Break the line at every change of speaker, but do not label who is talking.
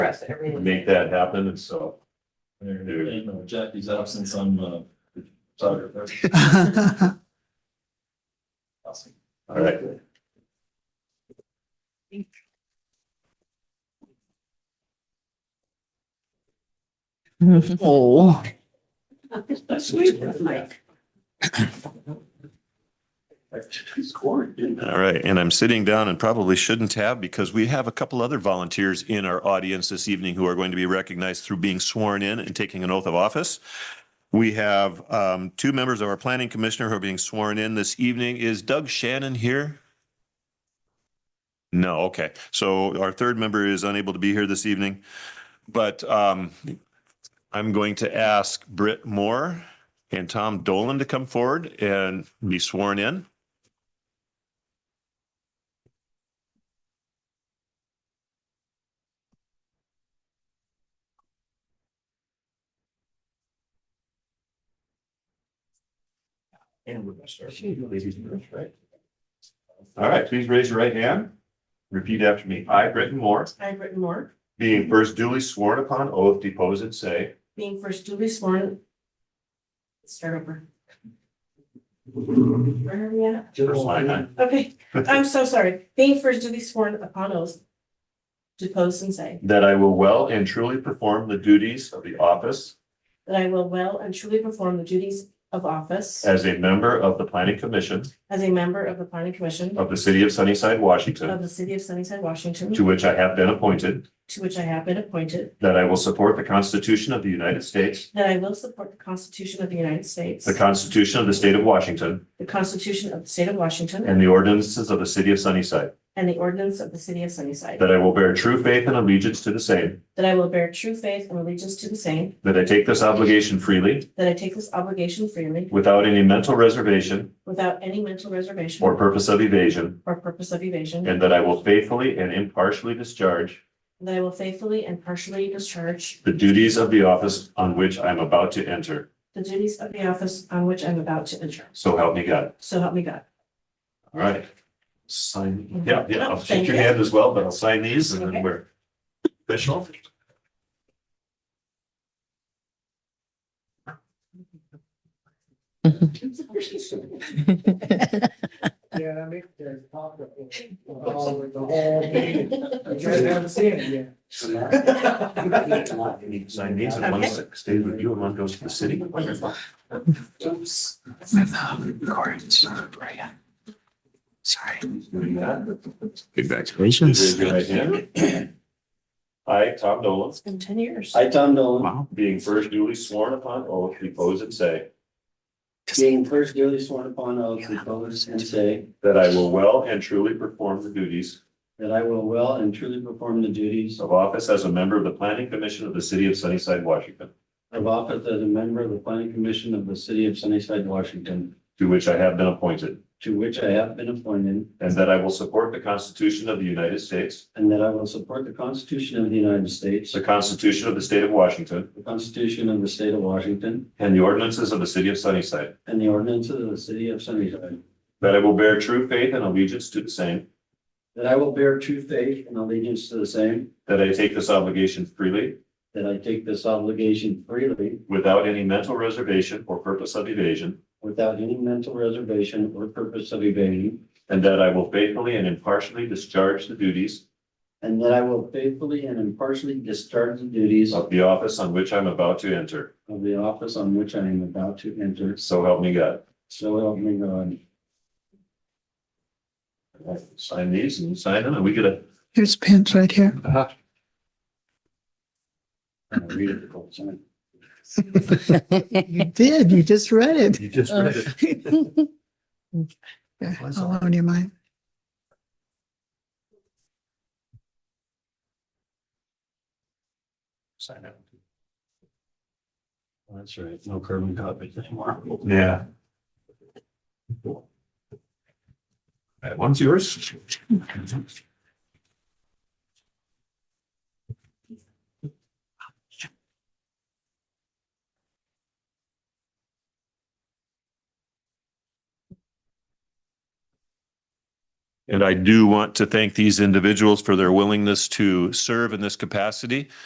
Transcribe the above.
Yes, everything.
make that happen, and so.
You know, Jackie's absence, uh, I'm a photographer. Awesome.
All right.
Oh,
Mike.
She's quarantined.
All right, and I'm sitting down and probably shouldn't have because we have a couple other volunteers in our audience this evening who are going to be recognized through being sworn in and taking an oath of office. We have um, two members of our planning commissioner who are being sworn in this evening. Is Doug Shannon here? No, okay. So our third member is unable to be here this evening. But um, I'm going to ask Britt Moore and Tom Dolan to come forward and be sworn in.
And we're gonna start. Ladies first, right?
All right, please raise your right hand. Repeat after me. I, Britton Moore,
I, Britton Moore,
being first duly sworn upon oath, depose and say
being first duly sworn. Start over. Where are we at?
First line, huh?
Okay, I'm so sorry. Being first duly sworn upon oath. Depose and say
that I will well and truly perform the duties of the office
that I will well and truly perform the duties of office
as a member of the Planning Commission
as a member of the planning commission
of the City of Sunnyside, Washington,
of the city of Sunnyside, Washington,
to which I have been appointed,
to which I have been appointed,
that I will support the Constitution of the United States,
that I will support the Constitution of the United States,
the Constitution of the State of Washington,
the Constitution of the state of Washington,
and the ordinances of the City of Sunnyside,
and the ordinance of the city of Sunnyside,
that I will bear true faith and allegiance to the same,
that I will bear true faith and allegiance to the same,
that I take this obligation freely
that I take this obligation freely
without any mental reservation
without any mental reservation
or purpose of evasion,
or purpose of evasion,
and that I will faithfully and impartially discharge
and that I will faithfully and partially discharge
the duties of the office on which I'm about to enter.
the duties of the office on which I'm about to enter.
So help me God.
So help me God.
All right. Sign, yeah, yeah, I'll shake your hand as well, but I'll sign these and then we're official.
Yeah, that makes their talk of it. all with the whole thing. You guys haven't seen it yet.
Sign these and one stays with you and one goes to the city. Wonderful. Raise
Congratulations.
your right hand. I, Tom Dolan,
It's been ten years.
I, Tom Nolan,
Wow.
being first duly sworn upon oath, depose and say
being first duly sworn upon oath, depose and say
that I will well and truly perform the duties
that I will well and truly perform the duties
of office as a member of the Planning Commission of the City of Sunnyside, Washington,
of office as a member of the planning commission of the city of Sunnyside, Washington,
to which I have been appointed,
to which I have been appointed,
and that I will support the Constitution of the United States,
and that I will support the Constitution of the United States,
the Constitution of the State of Washington,
the Constitution of the state of Washington,
and the ordinances of the City of Sunnyside,
and the ordinances of the city of Sunnyside,
that I will bear true faith and allegiance to the same,
that I will bear true faith and allegiance to the same,
that I take this obligation freely,
that I take this obligation freely
without any mental reservation or purpose of evasion,
without any mental reservation or purpose of evading,
and that I will faithfully and impartially discharge the duties
And that I will faithfully and impartially discharge the duties of
of the office on which I'm about to enter.
the office on which I am about to enter.
So help me God.
So help me God.
Sign these and sign them, and we get a
Here's pins right here.
And I read it the whole time.
You did, you just read it.
You just read it.
All on your mind.
Sign it.
That's right, no carbon copies anymore.
Yeah. That one's yours. And I do want to thank these individuals for their willingness to serve in this capacity.